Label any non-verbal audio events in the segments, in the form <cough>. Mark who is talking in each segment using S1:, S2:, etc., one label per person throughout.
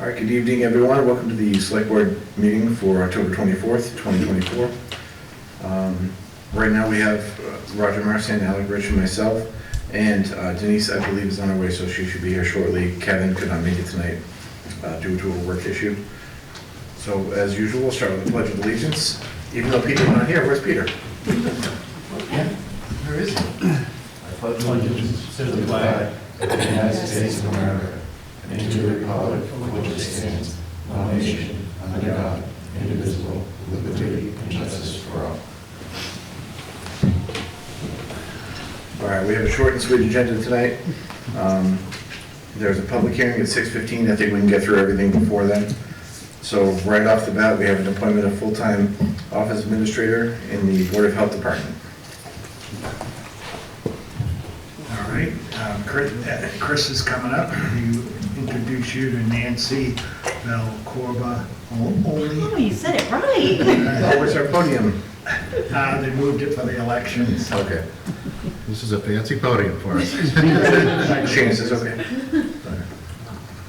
S1: All right, good evening, everyone. Welcome to the Select Board meeting for October 24th, 2024. Um, Right now, we have uh, Roger Marson, Alec Rich, and myself, and uh, Denise, I believe, is on her way, so she should be here shortly. Kevin could not make it tonight uh, due to a work issue. So as usual, we'll start with the Pledge of Allegiance. Even though Peter's not here, where's Peter? Yeah, Where is he?
S2: I pledge allegiance to the flag of the United States of America and to the republic for which it stands, one nation, under God, indivisible, with liberty and justice for all.
S1: All right, we have a short and sweet agenda tonight. Um, There's a public hearing at 6:15. I think we can get through everything before then. So right off the bat, we have an appointment of full-time office administrator in the Board of Health Department.
S3: All right, um, Chris uh, Chris is coming up. You introduce you to Nancy Valcorba
S4: Oh,
S3: only.
S4: you said it right. <laughs>
S1: Oh, where's our podium?
S3: Uh, They moved it for the election, so.
S1: Okay.
S5: This is a fancy podium for us.
S1: Chances, okay.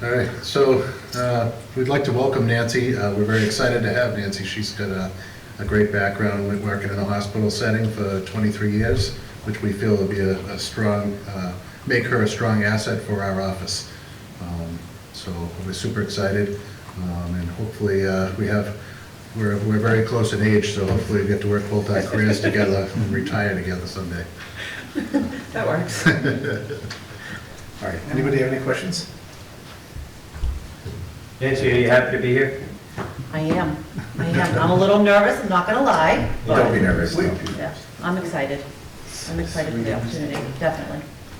S5: All right, so uh, we'd like to welcome Nancy. Uh, We're very excited to have Nancy. She's got a a great background, with working in a hospital setting for 23 years, which we feel will be a a strong, uh, make her a strong asset for our office. Um, So we're super excited, um, and hopefully, uh, we have, we're we're very close in age, so hopefully we get to work both our careers
S4: <laughs>
S5: together and retire together someday.
S4: That works.
S1: All right, anybody have any questions?
S6: Nancy, are you happy to be here?
S4: I am. I am. I'm a little nervous, I'm not gonna lie.
S1: Don't be nervous.
S3: We-
S1: don't be-
S4: Yeah, I'm excited. I'm excited for the opportunity, definitely.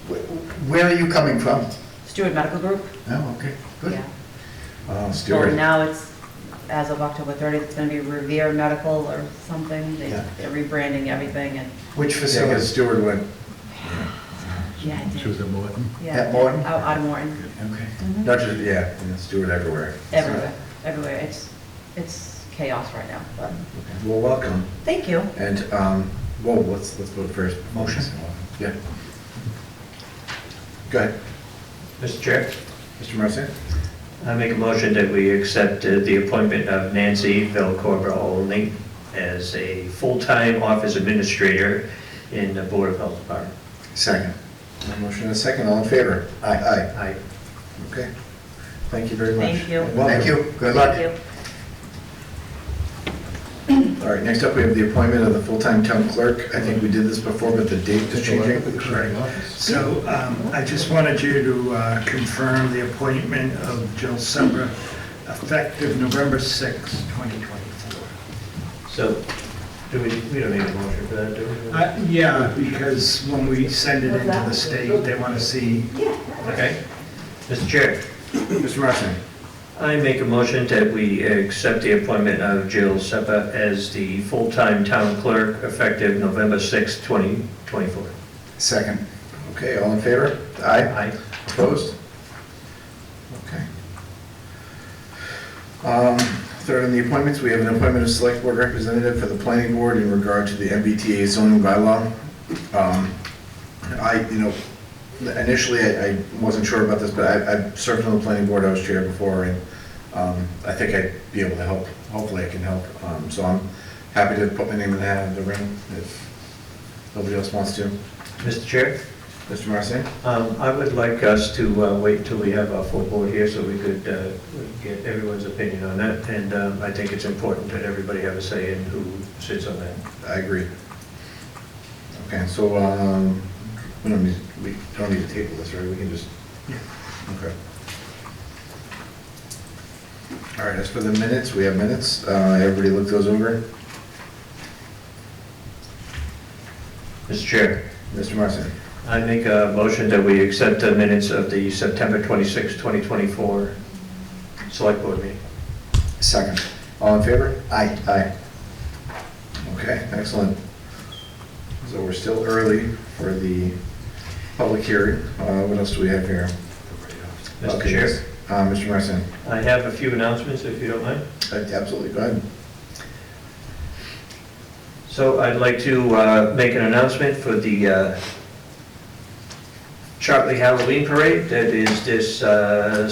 S3: Wh- Where are you coming from?
S4: Stewart Medical Group?
S3: Oh, okay, good. Uh,
S4: Yeah.
S1: Oh,
S4: Well,
S1: Stuart.
S4: now it's, as of October 30th, it's gonna be Revere Medical or something. They-
S3: Yeah.
S4: They're rebranding everything and,
S3: Which
S1: Yeah, 'cause
S3: facility?
S1: Stuart went,
S4: yeah, I
S5: She was
S4: did.
S5: at Morton.
S4: Yeah,
S3: at Morton?
S4: Out out of Morton.
S3: Okay.
S4: Mhm.
S1: not just, yeah, yeah, Stuart everywhere.
S4: Everywhere, everywhere. It's, it's chaos right now, but,
S1: Well, welcome.
S4: thank you.
S1: And, um, whoa, let's, let's vote first.
S3: Motion.
S1: Yeah. Go ahead,
S6: Mr. Chair,
S1: Mr. Marson.
S6: I make a motion that we accept uh, the appointment of Nancy Velcorba Olney as a full-time office administrator in the Board of Health Department.
S1: Second. Motion and a second, all in favor? Aye. Aye.
S6: I
S1: Okay. Thank you very much.
S4: Thank you.
S1: And welcome.
S3: Thank you, good
S4: Thank
S3: luck.
S4: you.
S1: All right, next up, we have the appointment of the full-time town clerk. I think we did this before, but the date is changing.
S3: So um, I just wanted you to uh, confirm the appointment of Jill Sember effective November 6, 2024.
S6: So, do we, we don't need a motion for that, do we?
S3: Uh, Yeah, because when we send it into the state, they want to see,
S6: Okay. Mr. Chair,
S1: Mr. Marson,
S6: I make a motion that we accept the appointment of Jill Seppa as the full-time town clerk effective November 6, 2024.
S1: second. Okay, all in favor? Aye.
S6: Aye.
S1: Opposed? Okay. Um, Third on the appointments, we have an appointment of Select Board Representative for the Planning Board in regard to the MBTA zoning bylaw. Um, I, you know, initially, I I wasn't sure about this, but I I served on the Planning Board, I was chair before, and um, I think I'd be able to help, hopefully I can help. Um, So I'm happy to put my name in the hat of the ring if nobody else wants to.
S6: Mr. Chair?
S1: Mr. Marson?
S6: Um, I would like us to uh, wait till we have our full board here so we could uh, get everyone's opinion on that. And um, I think it's important that everybody have a say in who sits on that.
S1: I agree. Okay, so, um, we don't need, we don't need to table this, right? We can just, okay. All right, as for the minutes, we have minutes. Uh, everybody look those over.
S6: Mr. Chair,
S1: Mr. Marson,
S6: I make a motion that we accept the minutes of the September 26, 2024 Select Board meeting.
S1: second. All in favor? Aye. Aye. Okay, excellent. So we're still early for the public hearing. Uh, what else do we have here?
S6: Mr.
S1: Okay,
S6: Chair,
S1: Uh, Mr. Marson? Uh,
S6: I have a few announcements, if you don't mind.
S1: Absolutely, go ahead.
S6: So I'd like to uh, make an announcement for the uh, Chartley Halloween Parade that is this uh,